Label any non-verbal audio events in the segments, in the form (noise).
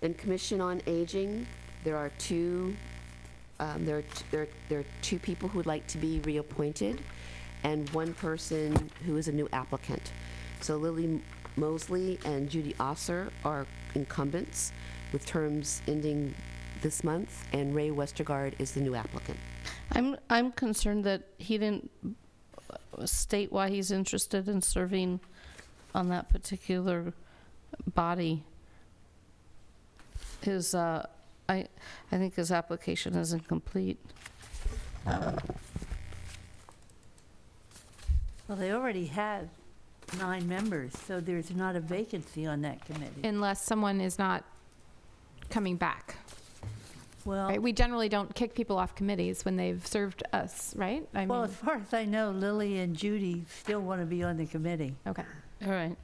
Then Commission on Aging, there are two, um, there are, t- there are- there are two people who would like to be reappointed, and one person who is a new applicant. So Lily Mosley and Judy Osser are incumbents with terms ending this month, and Ray Westergaard is the new applicant. I'm, I'm concerned that he didn't state why he's interested in serving on that particular body. His, uh, I, I think his application is incomplete. Well, they already have nine members, so there's not a vacancy on that committee. unless someone is not coming back. Well, Right? We generally don't kick people off committees when they've served us, right? I well, mean, as far as I know, Lily and Judy still want to be on the committee. okay. All right.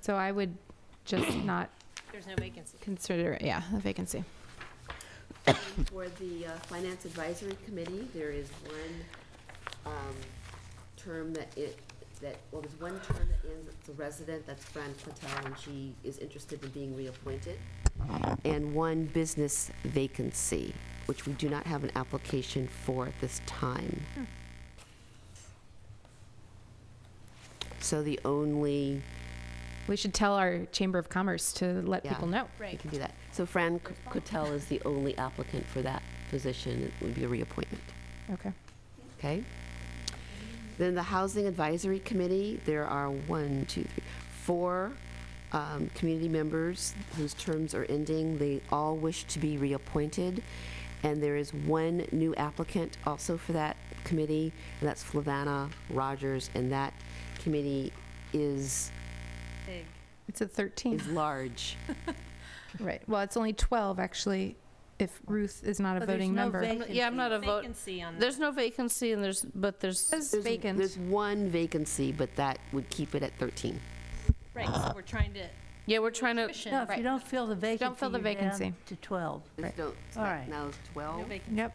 So I would (coughs) just not There's no vacancy. consider it, yeah, a vacancy. For the uh, Finance Advisory Committee, there is one um, term that it, that, well, there's one term that ends, it's a resident, that's Fran Platel, and she is interested in being reappointed. And one business vacancy, which we do not have an application for at this time. So the only, We should tell our Chamber of Commerce to let Yeah. people know. we can do that. So Fran Cotel is the only applicant for that position, it would be a reappointment. Okay. Okay. Then the Housing Advisory Committee, there are one, two, three, four um, community members whose terms are ending. They all wish to be reappointed. And there is one new applicant also for that committee, and that's Flavanna Rogers. And that committee is, It's at 13. is large. Right. Well, it's only 12, actually, if Ruth is not a But there's voting no member. vac- Yeah, I'm not a vote, Vacancy on that. there's no vacancy and there's, but there's, It's There's- vacant. There's one vacancy, but that would keep it at 13. Right, so we're trying to. yeah, we're trying to, cushion- No, if Right. you don't fill the vacancy, Don't fill the you're down vacancy. to 12. There's no- All right. Now it's No 12, vacancy. Yep.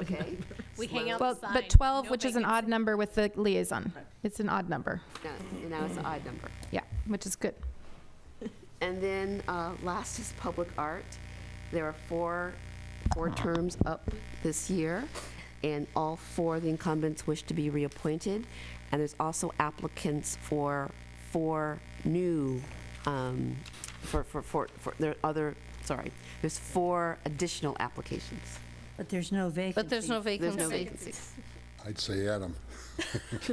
okay? We hang out Well, the sign, but 12, no which is an odd number with the liaison. It's an odd number. Now- And now it's an odd number. Yeah, which is good. And then uh, last is public art. There are four, four terms up this year, and all four of the incumbents wish to be reappointed. And there's also applicants for four new, um, for, for, for, for- there are other, sorry, there's four additional applications. But there's no vacancy. but there's no There's no vacancy. vacancies. I'd say Adam.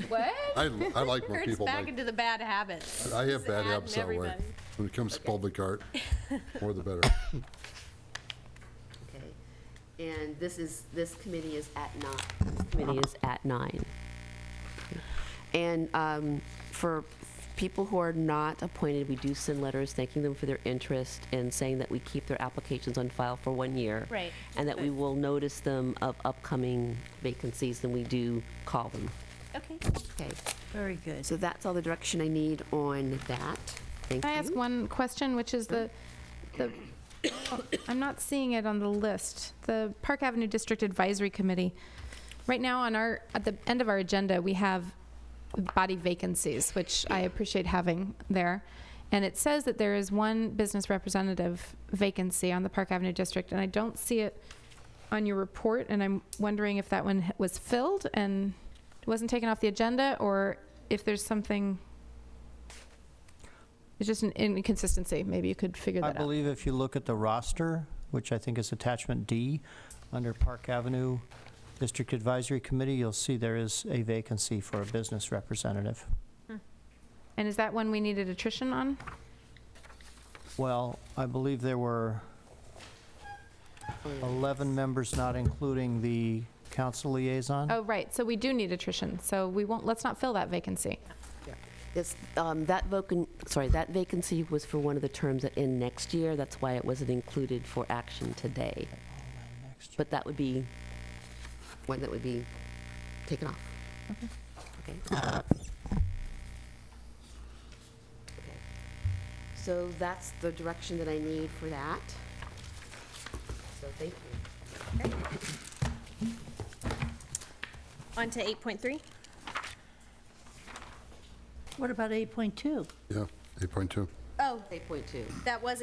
What? I, I like when It's people back like, into the bad habits. I have bad adding habits that way. everybody. When it comes to public art, more the better. Okay. And this is, this committee is at nine, this committee is at nine. And um, for people who are not appointed, we do send letters thanking them for their interest and saying that we keep their applications on file for one year. Right. And that we will notice them of upcoming vacancies, and we do call them. Okay. Okay, Very good. so that's all the direction I need on that. Thank you. Can I ask one question, which is the, the, (coughs) oh, I'm not seeing it on the list, the Park Avenue District Advisory Committee. Right now on our, at the end of our agenda, we have body vacancies, which I appreciate having there. And it says that there is one business representative vacancy on the Park Avenue District, and I don't see it on your report, and I'm wondering if that one was filled and wasn't taken off the agenda, or if there's something it's just an inconsistency. Maybe you could figure I that out. believe if you look at the roster, which I think is attachment D, under Park Avenue District Advisory Committee, you'll see there is a vacancy for a business representative. And is that one we needed attrition on? Well, I believe there were 11 members, not including the council liaison. Oh, right. So we do need attrition. So we won't, let's not fill that vacancy. It's, um, that vacant, sorry, that vacancy was for one of the terms that end next year. That's why it wasn't included for action today. But that would be, one that would be taken off. Okay. Uh, Okay. So that's the direction that I need for that. So thank you. On to 8.3. What about 8.2? Yeah, 8.2. Oh, 8.2. that was